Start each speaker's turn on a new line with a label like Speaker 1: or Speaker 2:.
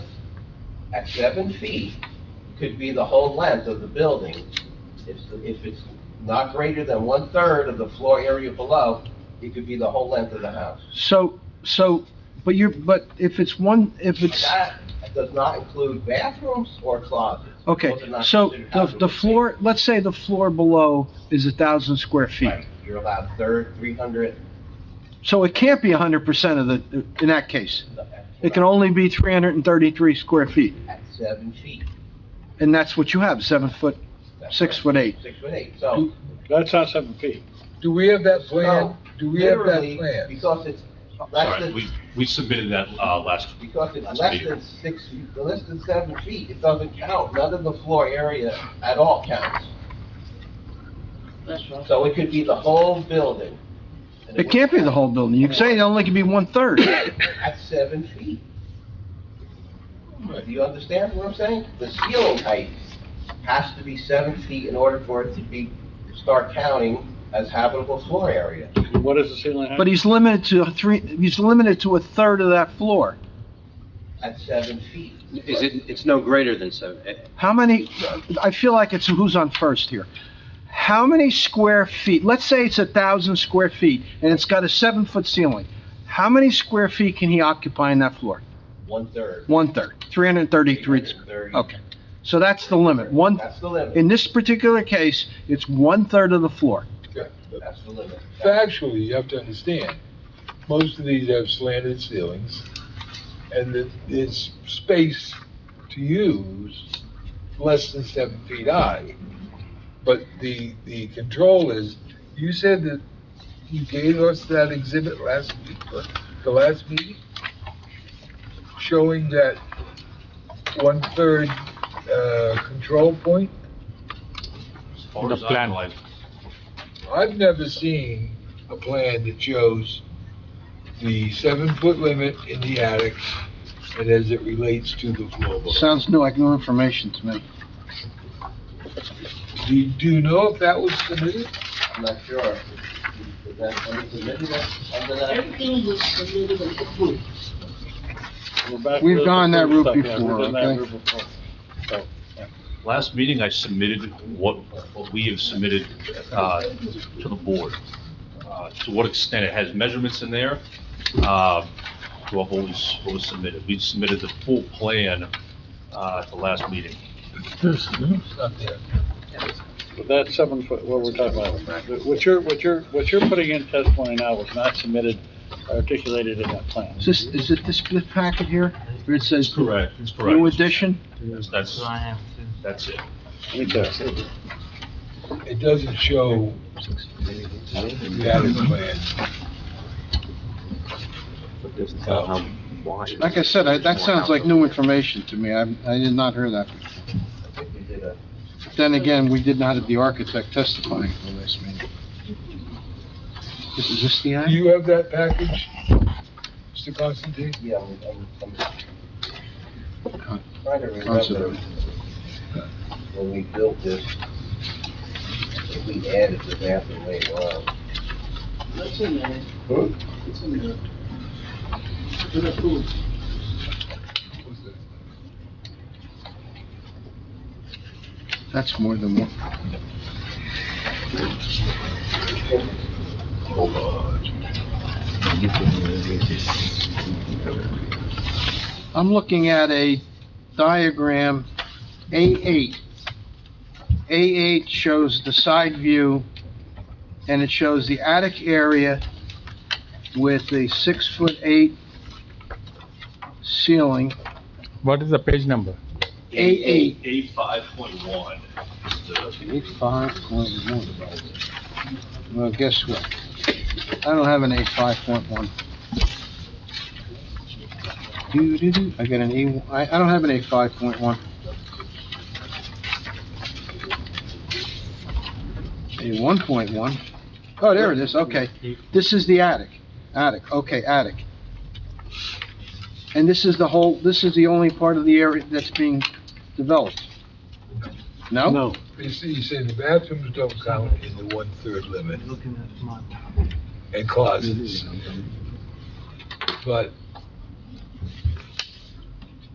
Speaker 1: at seven feet could be the whole length of the building. If, if it's not greater than one-third of the floor area below, it could be the whole length of the house.
Speaker 2: So, so, but you're, but if it's one, if it's,
Speaker 1: That does not include bathrooms or closets.
Speaker 2: okay,
Speaker 1: Those are not
Speaker 2: so
Speaker 1: considered
Speaker 2: the, the
Speaker 1: habitable
Speaker 2: floor, let's say the floor below is a thousand square
Speaker 1: space.
Speaker 2: feet.
Speaker 1: Right, You're allowed third, three hundred.
Speaker 2: So it can't be hundred percent of the, in that case. It can only be three hundred and thirty-three square feet,
Speaker 1: At seven feet.
Speaker 2: and that's what you have, seven foot,
Speaker 1: That's
Speaker 2: six
Speaker 1: right.
Speaker 2: foot eight.
Speaker 1: Six foot eight, so.
Speaker 3: That's not seven feet.
Speaker 4: Do we have that plan?
Speaker 1: No,
Speaker 4: Do we have that
Speaker 1: literally,
Speaker 4: plan?
Speaker 1: Because it's less
Speaker 5: Sorry,
Speaker 1: than,
Speaker 5: we, we submitted that, uh, last,
Speaker 1: because it's
Speaker 5: That's
Speaker 1: less
Speaker 5: bigger.
Speaker 1: than six, feet- less than seven feet, it doesn't count. None of the floor area at all counts. So it could be the whole building. and
Speaker 2: It can't be the whole building. You can say it only can be one-third.
Speaker 1: At seven feet. Do you understand what I'm saying? The ceiling height has to be seven feet in order for it to be, start counting as habitable floor area.
Speaker 3: What is the ceiling height?
Speaker 2: But he's limited to three, he's limited to a third of that floor.
Speaker 1: at seven feet.
Speaker 6: Is it, it's no greater than seven, eh,
Speaker 2: How many, I feel like it's who's on first here. How many square feet, let's say it's a thousand square feet, and it's got a seven-foot ceiling. How many square feet can he occupy in that floor?
Speaker 1: One-third.
Speaker 2: One-third, three hundred and thirty-three.
Speaker 1: 330.
Speaker 2: Okay, so that's the limit. One,
Speaker 1: That's the limit.
Speaker 2: in this particular case, it's one-third of the floor.
Speaker 1: That's the limit.
Speaker 4: Factually, you have to understand, most of these have slanted ceilings, and the- there's space to use less than seven feet high. But the, the control is, you said that you gave us that exhibit last week, or the last meeting, showing that one-third, uh, control point?
Speaker 5: as far as
Speaker 3: The
Speaker 5: I
Speaker 3: plan.
Speaker 5: know, I've-
Speaker 4: I've never seen a plan that shows the seven-foot limit in the attic and as it relates to the floor below.
Speaker 2: Sounds new, like new information to me.
Speaker 4: Do you, do you know if that was submitted?
Speaker 1: I'm not sure. Is that under the limit, under that?
Speaker 7: Everything was submitted and approved.
Speaker 3: We're back
Speaker 2: We've
Speaker 3: to the
Speaker 2: gone that route
Speaker 3: stuff. Yeah, we've
Speaker 2: before,
Speaker 3: done that
Speaker 2: okay?
Speaker 3: route before. So,
Speaker 5: last meeting I submitted what, what we have submitted, uh, to the board. Uh, To what extent it has measurements in there, uh, to what was, what was submitted. We submitted the full plan, uh, at the last meeting.
Speaker 4: It's not there.
Speaker 3: But that's seven foot, what we're talking about. What you're, what you're, what you're putting in testimony now was not submitted, articulated in that plan.
Speaker 2: Is this, is it this bit packet here, where it says
Speaker 5: Correct, that's
Speaker 2: new
Speaker 5: correct.
Speaker 2: addition?
Speaker 5: That's, that's it.
Speaker 3: Right there.
Speaker 4: It doesn't show the attic plan.
Speaker 2: Like I said, I- that sounds like new information to me. I, I did not hear that.
Speaker 1: I think we did a,
Speaker 2: Then again, we did not have the architect testifying for this meeting. This is this the
Speaker 4: Do
Speaker 2: end?
Speaker 4: you have that package, Mr. Constantine?
Speaker 1: yeah, I'm, I'm, I'm trying to remember
Speaker 2: Concept.
Speaker 1: when we built this, if we added the bathroom later on.
Speaker 7: That's in there,
Speaker 1: Hmm?
Speaker 7: that's in there. Been approved.
Speaker 2: That's more than one. I'm looking at a diagram, A8. A8 shows the side view, and it shows the attic area with a six-foot-eight ceiling.
Speaker 3: What is the page number?
Speaker 2: A8.
Speaker 5: A five point one is the
Speaker 2: Eight-five point one. Well, guess what? I don't have an eight-five point one. Do, do, do, I got an A, I, I don't have an eight-five point one. A one point one. Oh, there it is, okay. This is the attic, attic, okay, attic. And this is the whole, this is the only part of the area that's being developed? No?
Speaker 3: No.
Speaker 4: You see, you say the bathrooms don't count in the one-third limit. And closets. But